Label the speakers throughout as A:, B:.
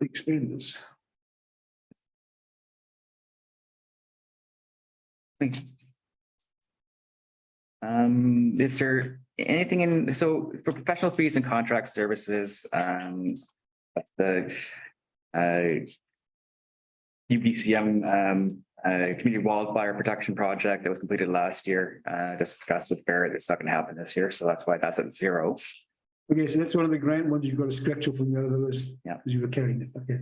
A: expand this.
B: Thank you. Um, is there anything in, so for professional fees and contract services, um, that's the uh UBCM um uh Community Wildfire Protection Project that was completed last year, uh discussed with Barrett, it's not gonna happen this year, so that's why that's at zero.
A: Okay, so that's one of the grant ones you've got to scratch off from the other list.
B: Yeah.
A: Because you were carrying it, okay.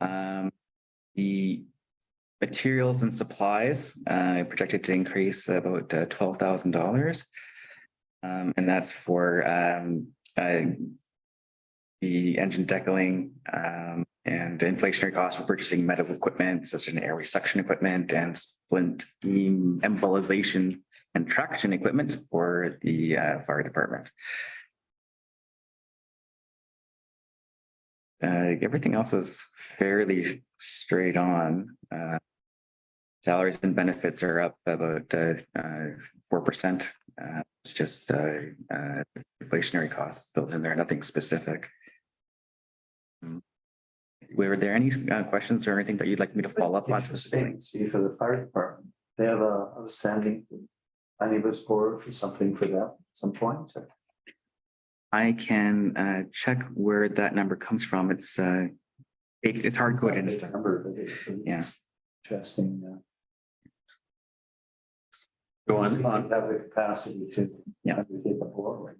B: Um, the materials and supplies, uh, projected to increase about uh, twelve thousand dollars. Um, and that's for, um, uh, the engine deckling, um, and inflationary costs for purchasing medical equipment, such as an air resection equipment and splint beam embolization and traction equipment for the, uh, fire department. Uh, everything else is fairly straight on. Uh, Salaries and benefits are up about uh, four percent. It's just uh, uh, inflationary costs built in there, nothing specific. Mm. Were there any uh, questions or anything that you'd like me to follow up on specifically?
C: Be E for the fire department. They have a outstanding omnibus board for something for that at some point. or-
B: I can uh, check where that number comes from. It's uh, it- it's hard coded.
C: It's not a big Number, but it- but it's Interesting. uh,
D: Go on,
C: see if
D: on.
C: they Have the capacity to.
B: Yeah.
C: Get the board.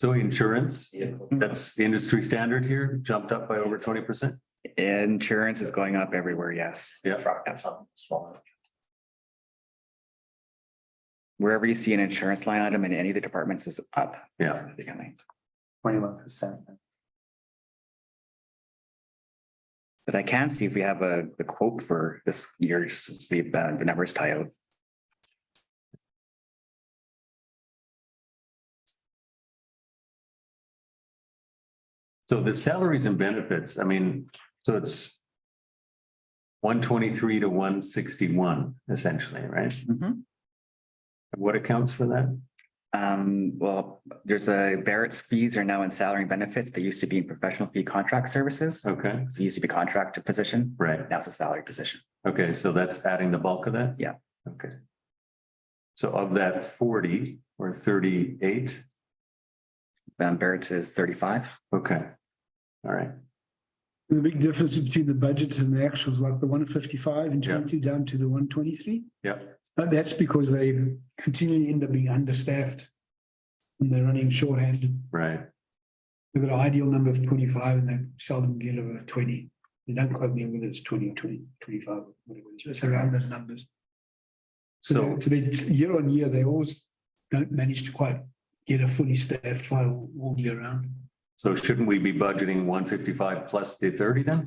D: So insurance, that's the industry standard here, jumped up by over twenty percent.
B: Insurance is going up everywhere, yes.
D: Yeah.
C: Smaller.
B: Wherever you see an insurance line item in any of the departments is up.
D: Yeah.
B: significantly.
C: Twenty-one percent.
B: But I can see if we have a, the quote for this year, just to see if the, the numbers tie out.
D: So the salaries and benefits, I mean, so it's one twenty-three to one sixty-one essentially, right? What accounts for that?
B: Um, well, there's a Barrett's fees are now in salary and benefits. They used to be in professional fee contract services.
D: Okay,
B: So it used to be contract position,
D: right.
B: now it's a salary position.
D: Okay, so that's adding the bulk of that?
B: Yeah.
D: Okay. So of that forty or thirty-eight,
B: Um, Barrett's is thirty-five.
D: okay. All right,
A: The big difference between the budgets and the actuals, like the one fifty-five and
D: Yeah.
A: twenty-two down to the one twenty-three.
D: yeah,
A: But that's because they continually end up being understaffed. And they're running shorthanded.
D: right.
A: They've got an ideal number of twenty-five and they seldom get over twenty. They don't quite me whether it's 20 or 20, 25, whatever it is. It's around those numbers.
D: So,
A: they-
C: Mhm.
A: So they, year on year, they always don't manage to quite get a fully staffed file all year round.
D: so shouldn't we be budgeting one fifty-five plus the thirty then?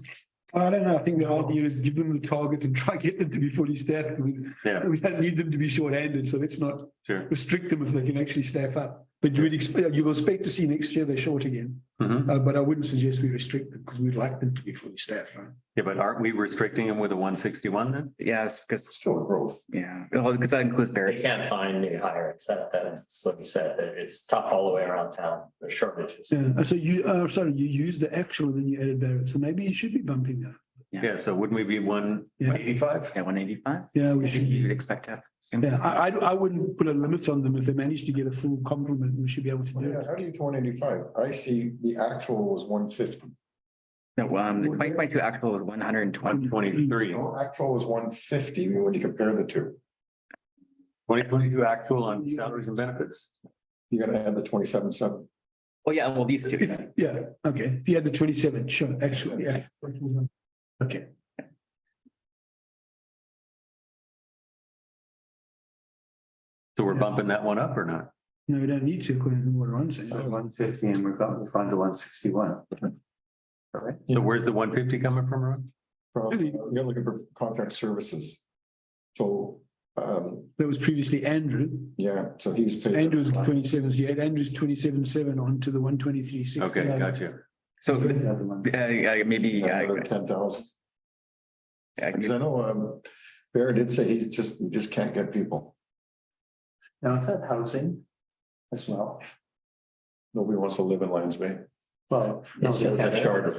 A: I don't know. I think the idea is give them the target and try get them to be fully staffed. We,
D: Yeah,
A: we don't need them to be shorthanded, so let's not
D: sure.
A: restrict them if they can actually staff up. But you would expect, you will expect to see next year they're short again,
D: Mhm.
A: Uh, but I wouldn't suggest we restrict them because we'd like them to be fully staffed, right?
D: Yeah, but aren't we restricting them with a one sixty-one then?
B: Yes, because,
C: Still growth.
B: yeah, well, because that includes
E: They
B: Barrett's.
E: can't find new hires, that, that's what he said, that it's tough all the way around town, there's shortages.
A: Yeah, so you, uh, sorry, you used the actual and then you added Barrett, so maybe you should be bumping that.
D: Yeah, so wouldn't we be one eighty-five?
B: Yeah, one eighty-five.
A: Yeah, we should.
B: You'd expect to have.
A: Yeah, I, I, I wouldn't put a limit on them. If they manage to get a full complement, we should be able to do
F: Yeah,
A: it.
F: how do you get one eighty-five? I see the actual was one fifty.
B: No, um, the twenty twenty-two actual was one hundred and twenty.
D: Twenty-three.
F: Actual was one fifty when you compare the two.
D: Twenty twenty-two actual on salaries and benefits.
F: You gotta add the twenty-seven, seven.
B: Oh, yeah, well, these two.
A: If- Yeah, okay. If you had the twenty-seven, sure, actually, yeah. Okay.
D: So we're
A: Yeah.
D: bumping that one up or not?
A: No, we don't need to, according to what Ron said.
C: One fifty and we've got, we've gone to one sixty-one.
D: So where's the one fifty coming from, Ron?
F: From, uh,
A: Really?
F: you're looking for contract services. So, um,
A: That was previously Andrew.
F: yeah, so he was paid.
A: Andrew's twenty-seven, so you had Andrew's twenty-seven, seven onto the one twenty-three, six.
D: Okay, gotcha.
B: So, uh,
C: Another one.
B: uh, maybe, uh,
F: Ten thousand.
B: I
F: Because I know, um, Bear did say he's just, he just can't get people.
C: Now, is that housing as well?
F: Nobody wants to live in Lions Bay.
C: Well.
E: It's just a
C: that
E: shortage.